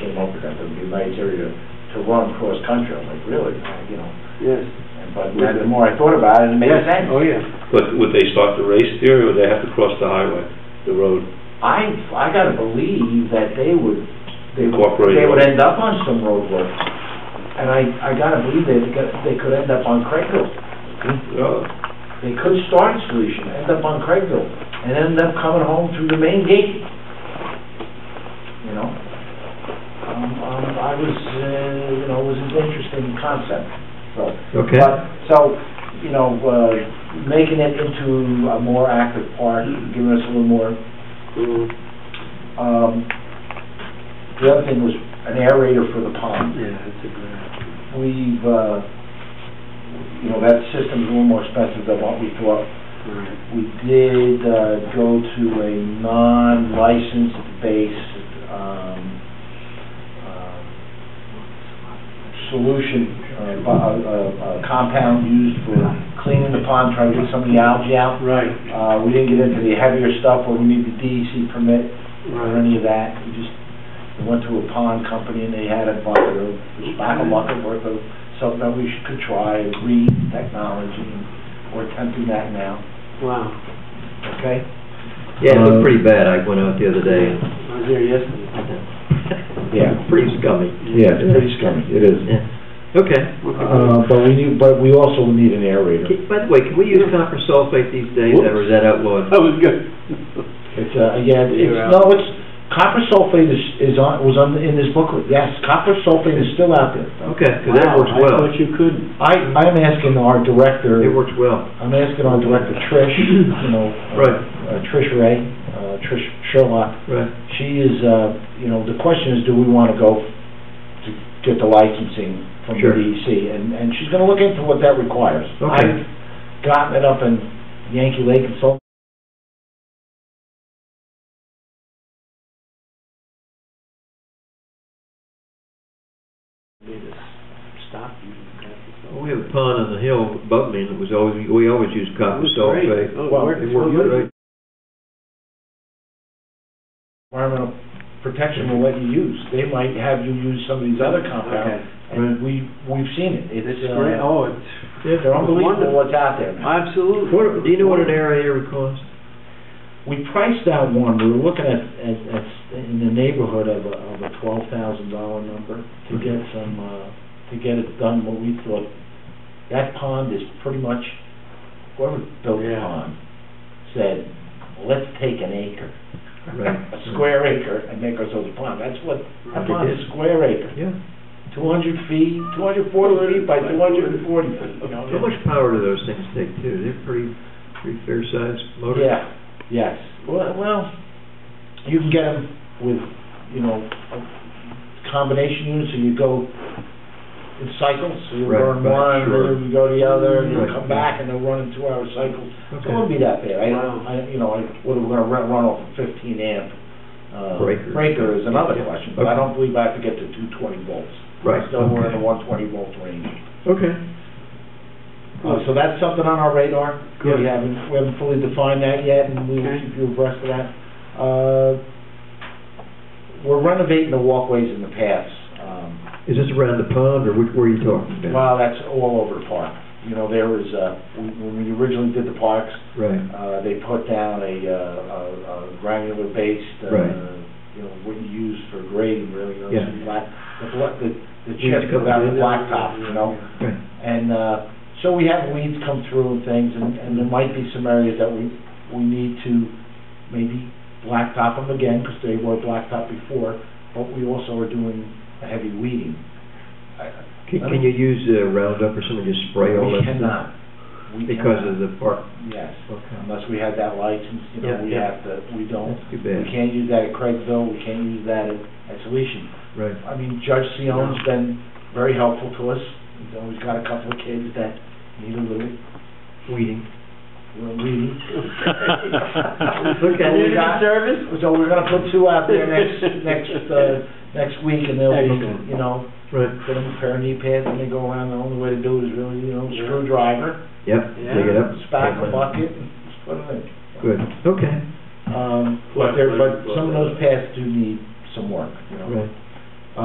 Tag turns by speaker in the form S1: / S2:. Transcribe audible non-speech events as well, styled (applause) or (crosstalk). S1: over that, there'd be lights area to run cross-country, I was like, really, you know?
S2: Yes.
S1: And But the more I thought about it, it made
S2: Yes.
S1: sense.
S2: Oh, yeah.
S3: But would they start the race there, or would they have to cross the highway, the road?
S1: I, I gotta believe that they would, they would,
S3: Incorporate
S1: they
S3: it.
S1: would end up on some roadwork. And I, I gotta believe they, could- they could end up on Craigville.
S3: Uh,
S1: They could start at Solution, end up on Craigville, and end up coming home through the main gate. You know? Um, um, I was, uh, you know, it was an interesting concept, so.
S3: Okay.
S1: But, so, you know, uh, making it into a more active park, giving us a little more
S2: Mm,
S1: um, The other thing was an aerator for the pond.
S2: Yeah, that's a good idea.
S1: We've, uh, you know, that system's a little more expensive than what we thought.
S2: All right.
S1: We did uh, go to a non-licensed base um, um, solution, uh, bu- uh, uh, compound used for cleaning the pond, trying to get some of the algae out.
S2: Right,
S1: Uh, We didn't get into the heavier stuff where we need the DEC permit or
S2: right.
S1: any of that. We just we went to a pond company and they had a bucket of, a pack a bucket worth of something that we should- could try, green technology, and we're attempting that now,
S2: Wow.
S1: okay?
S4: Yeah, it looked pretty bad, I went out the other day.
S2: I was there yesterday.
S4: (laughs) Yeah. Pretty scummy.
S2: (laughs)
S5: Yeah, it's pretty scummy, it is.
S4: Yeah. Okay.
S5: Uh, but we need, but we also need an aerator.
S4: Can- By the way, can we use copper sulfate these days, or is that outlawed?
S3: Uh,
S2: That was good.
S5: It's, uh, yeah, it's,
S2: You're out.
S5: no, it's, copper sulfate is, is on, was on, in this booklet, yes, copper sulfate is still out there.
S4: Okay, because that
S2: Wow,
S4: works
S2: I
S4: well.
S2: thought you couldn't.
S5: I, I'm asking our director,
S4: It works well.
S5: I'm asking our director Trish, you know. uh,
S4: Right.
S5: uh, Trish Ray, uh, Trish Sherlock,
S4: Right.
S5: she is, uh, you know, the question is, do we wanna go to get the licensing from the
S4: Sure.
S5: DEC? And, and she's gonna look into what that requires.
S4: Okay.
S5: I've gotten it up in Yankee Lake and so
S2: They just stopped you. That
S4: Well, We have a pond on the hill above me, and it was always, we always use copper
S2: was great.
S4: sulfate.
S2: Oh,
S5: Well,
S2: worked
S4: It
S2: so
S4: works
S2: good.
S4: great.
S5: environmental protection will let you use. They might have you use some of these other
S2: Okay.
S5: compounds, and we, we've seen it. It's,
S2: It's great,
S5: uh,
S2: oh, it's,
S5: they're unbelievable what's out there now.
S2: absolutely.
S4: What, do you know what an aerator costs?
S5: We priced out one, we were looking at, at, at, in the neighborhood of a, of a twelve thousand dollar number to get some, uh, to get it done, what we thought. That pond is pretty much, whoever built the
S2: Yeah.
S5: pond said, let's take an acre,
S4: Right. (laughs)
S5: a square acre, and make ourselves a pond. That's what, that
S4: Right.
S5: pond is a square acre.
S4: Yeah.
S5: two hundred feet, two hundred forty feet by two hundred and forty feet, you know?
S4: How much power do those things take, too? They're pretty, pretty fair-sized motors.
S5: Yeah, yes. Well, well, you can get them with, you know, a combination units, so you go in cycles, so you
S4: Right,
S5: burn
S4: right,
S5: one, and
S4: sure.
S5: then you go to the other, and you
S4: Right,
S5: come
S4: yeah.
S5: back, and they'll run in two-hour cycles. So It
S4: Okay.
S5: wouldn't be that bad. I,
S2: Wow.
S5: I, you know, I, whether we're gonna run, run off a fifteen amp, uh,
S4: Breaker.
S5: breaker is another
S4: Yeah.
S5: question, but I
S4: Okay.
S5: don't believe I have to get to two twenty volts.
S4: Right.
S5: Still, we're in
S4: okay.
S5: the one twenty volt range.
S4: Okay.
S5: Uh, So that's something on our radar.
S2: Good.
S5: We haven't, we haven't fully defined that yet, and we will
S2: Okay.
S5: keep you abreast of that. Uh, We're renovating the walkways and the paths. Um,
S4: Is this around the pond, or which, where are you talking about?
S5: Well, that's all over the park. You know, there was, uh, when when we originally did the parks,
S4: Right.
S5: uh, they put down a, uh, a a granular based, uh,
S4: Right.
S5: you know, what you use for grading, really, you know,
S4: Yeah.
S5: some black, the bla- the the
S4: Weeds
S5: chip
S4: come
S5: without the
S4: through.
S5: blacktop, you
S2: (laughs)
S5: know?
S4: Right.
S5: And uh, so we have weeds come through and things, and and there might be some areas that we, we need to maybe blacktop them again, because they were blacktop before, but we also are doing a heavy weeding. I-
S4: Can, can you use uh, Roundup or something to spray all
S5: We
S4: that?
S5: cannot. We
S4: Because
S5: cannot.
S4: of the park?
S5: Yes,
S4: Okay.
S5: unless we had that license, you know,
S4: Yeah,
S5: we
S4: yeah.
S5: have to, we don't.
S4: That's too
S5: We
S4: bad.
S5: can't use that at Craigville, we can't use that at, at Solution.
S4: Right.
S5: I mean, Judge Sion's been very helpful to us, he's always got a couple of kids that need a little
S4: Weeding.
S5: We're weeding.
S4: Look at
S5: We
S4: it.
S5: got- So we're gonna put two out there next, next, uh, next week, and they'll
S4: Excellent.
S5: be, you know,
S4: Right.
S5: get them a pair of knee pads, and they go around, the only way to do it is really, you know, screwdriver,
S4: Yep,
S2: Yeah.
S4: dig it up.
S5: spack a bucket, and put it in.
S4: Good, okay,
S5: Um, but there, but some of those paths do need some work, you know?
S4: right.